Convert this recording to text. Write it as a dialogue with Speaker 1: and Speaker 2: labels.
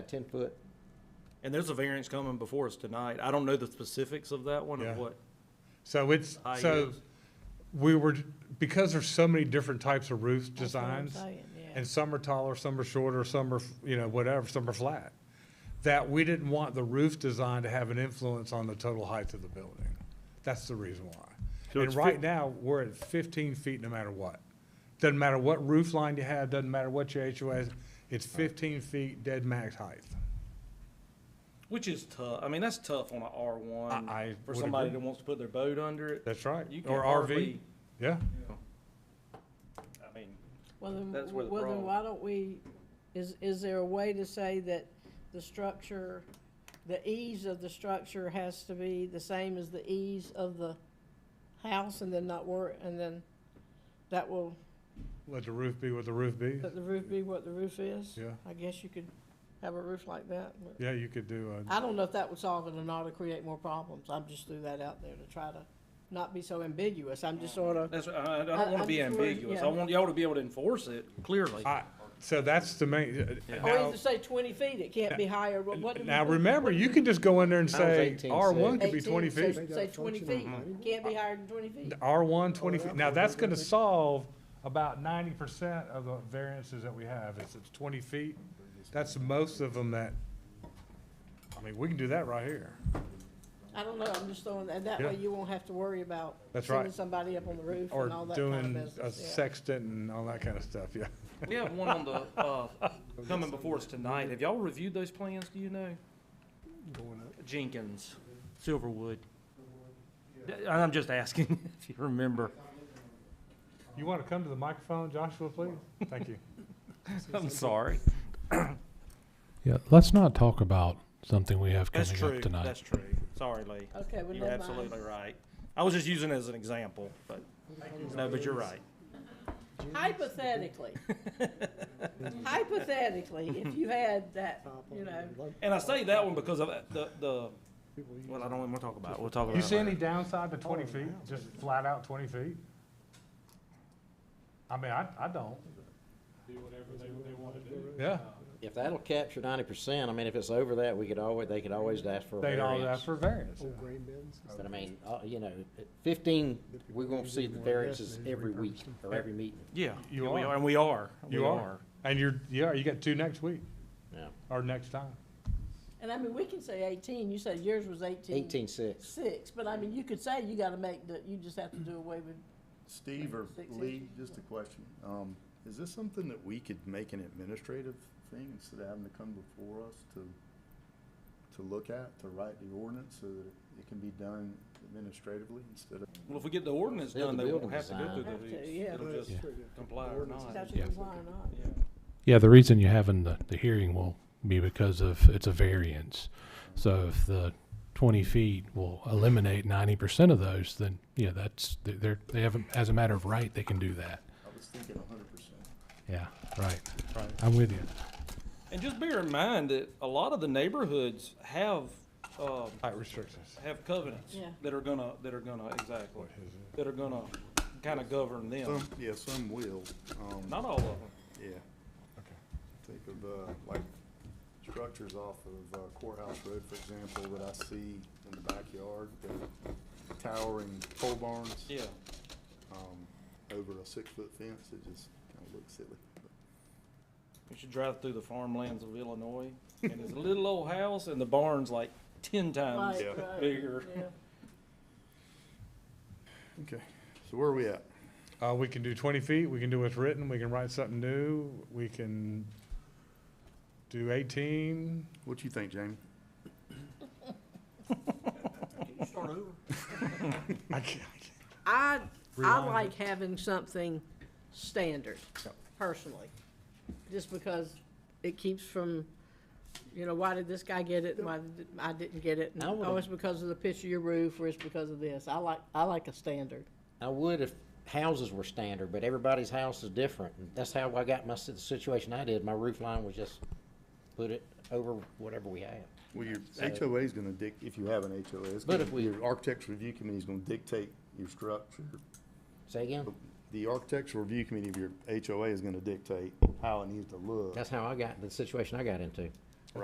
Speaker 1: ten foot?
Speaker 2: And there's a variance coming before us tonight. I don't know the specifics of that one
Speaker 3: Yeah.
Speaker 2: of what.
Speaker 3: So it's,
Speaker 2: High
Speaker 3: so
Speaker 2: yields.
Speaker 3: we were, because there's so many different types of roof
Speaker 4: That's what I'm
Speaker 3: designs,
Speaker 4: saying, yeah.
Speaker 3: and some are taller, some are shorter, some are, you know, whatever, some are flat, that we didn't want the roof design to have an influence on the total height of the building. That's the reason
Speaker 5: So
Speaker 3: why.
Speaker 5: it's
Speaker 3: And
Speaker 5: fif-
Speaker 3: right now, we're at fifteen feet no matter what. Doesn't matter what roof line you have, doesn't matter what your HOA is, it's fifteen feet dead max height.
Speaker 2: Which is tough. I mean, that's tough on a R one.
Speaker 3: I- I
Speaker 2: For
Speaker 3: would
Speaker 2: somebody
Speaker 3: agree.
Speaker 2: that wants to put their boat under it.
Speaker 3: That's right.
Speaker 2: You can
Speaker 3: Or RV,
Speaker 2: hardly-
Speaker 3: yeah.
Speaker 2: I mean,
Speaker 4: Well, then,
Speaker 2: That's where the
Speaker 4: well, then
Speaker 2: problem-
Speaker 4: why don't we, is, is there a way to say that the structure, the ease of the structure has to be the same as the ease of the house and then not work, and then that will,
Speaker 3: Let the roof be what the roof be.
Speaker 4: let the roof be what the roof is?
Speaker 3: Yeah.
Speaker 4: I guess you could have a roof like that. but-
Speaker 3: Yeah, you could do a.
Speaker 4: I don't know if that would solve it or not or create more problems. I'm just threw that out there to try to not be so ambiguous. I'm just sort of,
Speaker 2: that's, I, I
Speaker 4: I-
Speaker 2: don't wanna
Speaker 4: I'm
Speaker 2: be
Speaker 4: just worried,
Speaker 2: ambiguous. I
Speaker 4: yeah.
Speaker 2: want y'all to be able to enforce it clearly.
Speaker 3: I- So that's the main, uh,
Speaker 2: Yeah.
Speaker 4: or
Speaker 3: now,
Speaker 4: either say twenty feet, it can't be higher, but what do we?
Speaker 3: now
Speaker 4: what-
Speaker 3: remember,
Speaker 4: what do we-
Speaker 3: you can just go in there and
Speaker 1: I was
Speaker 3: say,
Speaker 1: 18,
Speaker 3: R one could be
Speaker 4: 18,
Speaker 3: twenty
Speaker 4: say-
Speaker 3: feet.
Speaker 4: Say twenty feet, can't be higher than twenty feet.
Speaker 3: R one, twenty
Speaker 1: Oh,
Speaker 3: feet. Now, that's gonna solve about ninety percent of the variances that we have. It's, it's twenty feet. That's most of them that, I mean, we can do that right here.
Speaker 4: I don't know, I'm just throwing, and that
Speaker 3: Yeah.
Speaker 4: way you won't have to worry about
Speaker 3: That's
Speaker 4: sending
Speaker 3: right.
Speaker 4: somebody up on the roof
Speaker 3: Or
Speaker 4: and all that kind
Speaker 3: doing
Speaker 4: of
Speaker 3: a
Speaker 4: business. yeah.
Speaker 3: sextant and all that kind of stuff, yeah.
Speaker 2: We have one on the, uh, coming before us tonight. Have y'all reviewed those plans? Do you know? Jenkins, Silverwood. D- I'm just asking if you remember.
Speaker 3: You wanna come to the microphone, Joshua, please? Thank you.
Speaker 2: I'm sorry.
Speaker 6: Yeah, let's not talk about something we have
Speaker 2: That's
Speaker 6: coming
Speaker 2: true.
Speaker 6: up tonight.
Speaker 2: That's true. Sorry, Lee.
Speaker 4: Okay, well,
Speaker 2: You're
Speaker 4: never
Speaker 2: absolutely
Speaker 4: mind.
Speaker 2: right. I was just using it as an example, but, no, but you're right.
Speaker 4: Hypothetically. Hypothetically, if you had that, you know,
Speaker 2: And I say that one because of the, the, well, I don't even want to talk about it. We'll talk about it.
Speaker 3: You see any
Speaker 2: later.
Speaker 3: downside to twenty feet, just flat out twenty feet? I mean, I, I don't. Do whatever they, they wanna do.
Speaker 1: If that'll capture ninety percent, I mean, if it's over that, we could always, they could always ask for a
Speaker 3: Yeah, they'd all
Speaker 1: variance.
Speaker 3: ask for variance.
Speaker 1: But I mean, uh, you know, at fifteen, we're gonna see the variances every week or every meeting,
Speaker 2: Yeah.
Speaker 3: You
Speaker 2: yeah, we
Speaker 3: are.
Speaker 2: And we are.
Speaker 3: You
Speaker 2: We
Speaker 3: are, and you're, yeah, you got two next week,
Speaker 1: yeah.
Speaker 3: or next time.
Speaker 4: and I mean, we can say eighteen, you said yours was eighteen.
Speaker 1: Eighteen six.
Speaker 4: Six, but I mean, you could say you gotta make the, you just have to do away with
Speaker 7: Steve or
Speaker 4: Six
Speaker 7: Lee, just a question. Um, is this something that we could make an administrative thing instead of having to come before us to, to look at, to write the ordinance so that it can be done administratively instead of?
Speaker 2: Well, if we get the ordinance
Speaker 1: They're the
Speaker 2: done, they won't
Speaker 1: building
Speaker 2: have to go
Speaker 1: design.
Speaker 2: through the
Speaker 4: Have to,
Speaker 2: hoops.
Speaker 4: yeah.
Speaker 2: It'll just comply or
Speaker 7: Oh,
Speaker 2: not.
Speaker 4: statute
Speaker 6: Yeah.
Speaker 4: of law or not.
Speaker 2: Yeah.
Speaker 6: Yeah, the reason you're having the, the hearing will be because of, it's a variance. So if the twenty feet will eliminate ninety percent of those, then, yeah, that's, they're, they have, as a matter of right, they can do that.
Speaker 7: I was thinking a hundred percent.
Speaker 6: Yeah, right.
Speaker 3: Right.
Speaker 6: I'm with you.
Speaker 2: And just bear in mind that a lot of the neighborhoods have, um,
Speaker 3: Height restrictions.
Speaker 2: have covenants
Speaker 4: Yeah.
Speaker 2: that are gonna, that are gonna, exactly, that are gonna kinda govern them.
Speaker 7: Some, yeah, some will, um.
Speaker 2: Not all of them.
Speaker 7: Yeah. Okay. Think of, uh, like, structures off of uh, Courthouse Road, for example, that I see in the backyard, the towering pole barns.
Speaker 2: Yeah.
Speaker 7: um, over a six-foot fence, it just kind of looks silly.
Speaker 2: You should drive through the farmlands of Illinois and it's a little old house and the barn's like ten times
Speaker 4: Right, right,
Speaker 2: bigger.
Speaker 4: uh, yeah.
Speaker 7: Okay, so where are we at?
Speaker 3: Uh, we can do twenty feet, we can do what's written, we can write something new, we can do eighteen.
Speaker 7: What you think, Jamie?
Speaker 3: I can't,
Speaker 4: I, I
Speaker 3: Remind
Speaker 4: like having something standard, personally, just because it keeps from, you know, why did this guy get it, and why did I didn't get it? and,
Speaker 1: I would've-
Speaker 4: Oh, it's because of the pitch of your roof, or it's because of this, I like, I like a standard.
Speaker 1: I would if houses were standard, but everybody's house is different. And That's how I got my, si- the situation I did. My roof line was just put it over whatever we had.
Speaker 7: Well, your HOA is going to dic, if you have an HOA, it's
Speaker 1: But
Speaker 7: gonna-
Speaker 1: if we-
Speaker 7: Your architect's review committee is going to dictate your structure.
Speaker 1: Say again?
Speaker 7: The architectural review committee of your HOA is going to dictate how it needs to look.
Speaker 1: That's how I got, the situation I got into.